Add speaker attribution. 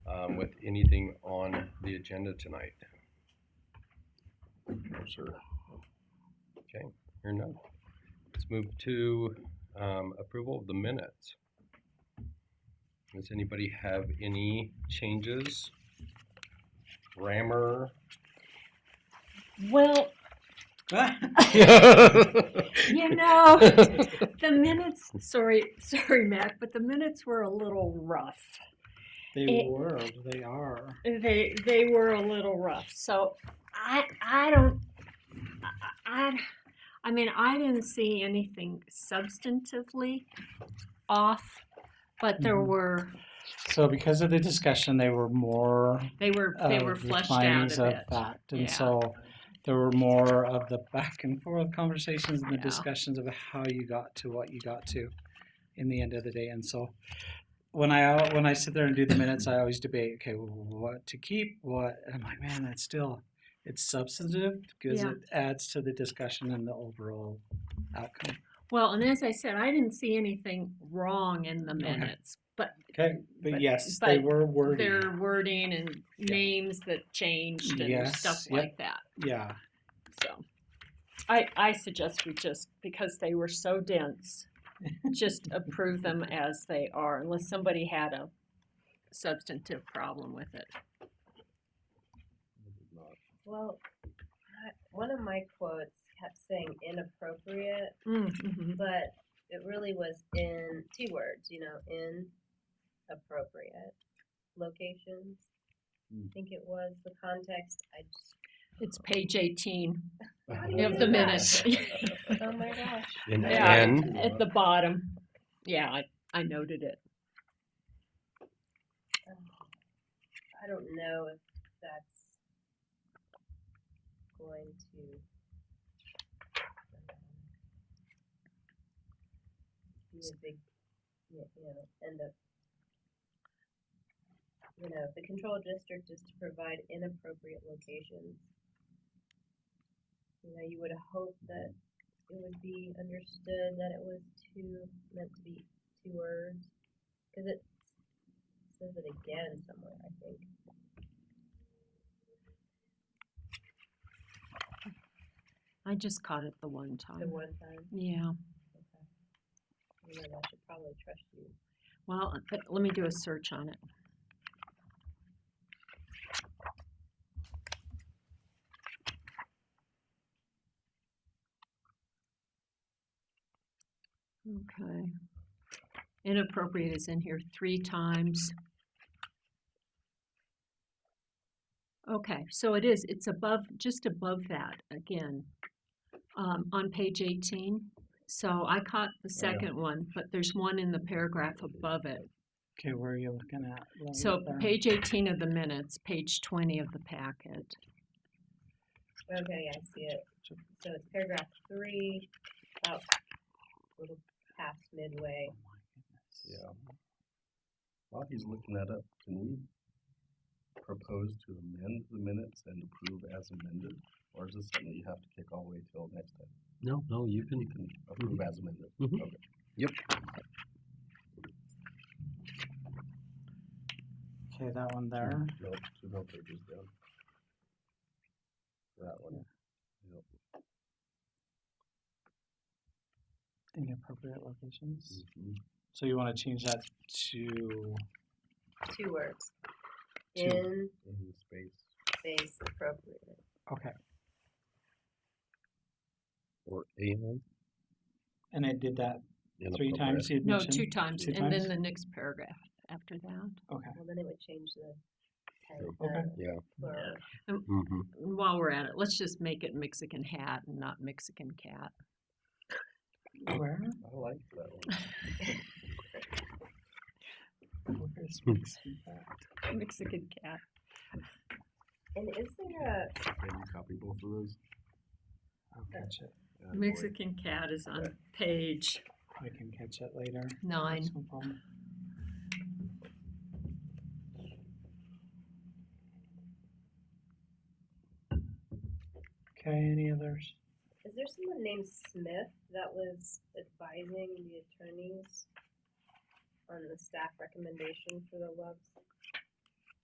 Speaker 1: um, anything on the agenda tonight?
Speaker 2: No, sir.
Speaker 1: Okay, hearing none. Let's move to, um, approval of the minutes. Does anybody have any changes? Grammar?
Speaker 3: Well, you know, the minutes, sorry, sorry, Mac, but the minutes were a little rough.
Speaker 4: They
Speaker 3: It-
Speaker 4: were, they are.
Speaker 3: They, they were a little rough. So I, I don't, I- I, I mean, I didn't see anything substantively off, but there
Speaker 4: Mhm.
Speaker 3: were,
Speaker 4: So because of the discussion, they were more.
Speaker 3: they were, they
Speaker 4: of
Speaker 3: were
Speaker 4: Uh, the
Speaker 3: fleshed out
Speaker 4: findings
Speaker 3: a
Speaker 4: of
Speaker 3: bit.
Speaker 4: fact, and
Speaker 3: Yeah.
Speaker 4: so there were more of the back and forth conversations and the
Speaker 3: Yeah.
Speaker 4: discussions of how you got to what you got to, in the end of the day. And so, when I al- when I sit there and do the minutes, I always debate. Okay, well, what to keep? What? And I'm like, man, that's still it's substantive because
Speaker 3: Yeah.
Speaker 4: it adds to the discussion and the overall outcome.
Speaker 3: Well, and as I said, I didn't see anything wrong in the
Speaker 4: Okay.
Speaker 3: minutes, but
Speaker 4: Okay, but,
Speaker 3: But-
Speaker 4: yes, they
Speaker 3: but
Speaker 4: were wordy.
Speaker 3: their wording and names that changed and stuff
Speaker 4: Yes, yep.
Speaker 3: like that.
Speaker 4: Yeah.
Speaker 3: So I, I suggest we just, because they were so dense, just approve them as they are unless somebody had a substantive problem with it.
Speaker 5: Well, I- one of my quotes kept saying inappropriate,
Speaker 3: Mm-hmm.
Speaker 5: but it really was in two words, you know, in appropriate locations. I think it was the context. I just,
Speaker 3: It's page eighteen
Speaker 5: Yep,
Speaker 3: of the minutes.
Speaker 5: oh my gosh.
Speaker 1: In
Speaker 3: Yeah,
Speaker 1: N?
Speaker 3: At the bottom. Yeah, I, I noted it.
Speaker 5: um, I don't know if that's going to. um, Be a big, you you know, end up. You know, the control district is to provide inappropriate locations. You know, you would hope that it would be understood that it was two, meant to be two words, cause it says it again somewhere, I think.
Speaker 3: I just caught it the one
Speaker 5: The
Speaker 3: time.
Speaker 5: one time.
Speaker 3: Yeah,
Speaker 5: Okay. You know, I should probably trust you.
Speaker 3: well, but let me do a search on it. Okay. Inappropriate is in here three times. Okay, so it is, it's above, just above that again, um, on page eighteen. So I caught the second one, but there's one in the paragraph above it.
Speaker 4: Okay, where are you looking at? Let me
Speaker 3: So
Speaker 4: look there.
Speaker 3: page eighteen of the minutes, page twenty of the packet.
Speaker 5: Okay, I see it. So it's paragraph three, about a little past midway.
Speaker 1: Yeah. While he's looking that up, can we propose to amend the minutes and approve as amended? Or is this something you have to kick all the way till next time? No, no, you can. Mm-hmm. Approve as amended. Okay.
Speaker 4: Okay, that one there.
Speaker 1: No, two more pages down. That one. Yep.
Speaker 4: Inappropriate locations.
Speaker 1: Mhm.
Speaker 4: So you want to change that to
Speaker 5: Two words.
Speaker 4: Two.
Speaker 5: In
Speaker 1: In space
Speaker 5: space appropriate.
Speaker 4: okay,
Speaker 1: or and.
Speaker 4: and I did that three times. You
Speaker 3: No, two times,
Speaker 4: Two
Speaker 3: and then
Speaker 4: times?
Speaker 3: the next paragraph after that.
Speaker 4: Okay.
Speaker 5: Well, then it would change the. pen-
Speaker 4: Okay.
Speaker 5: the
Speaker 1: Yeah.
Speaker 5: plural.
Speaker 1: Mm-hmm.
Speaker 3: And while we're at it, let's just make it Mexican hat and not Mexican cat.
Speaker 4: Where?
Speaker 1: I like that one.
Speaker 4: Where's Mike's feedback?
Speaker 3: Mexican cat.
Speaker 5: And is there
Speaker 1: Can you copy both of those?
Speaker 4: I'll catch it.
Speaker 1: Attaboy.
Speaker 3: Mexican cat is on page
Speaker 4: I can catch it later.
Speaker 3: nine.
Speaker 4: That's No problem. Okay. Any others?
Speaker 5: a, is there someone named Smith that was advising the attorneys on the staff recommendation for the Love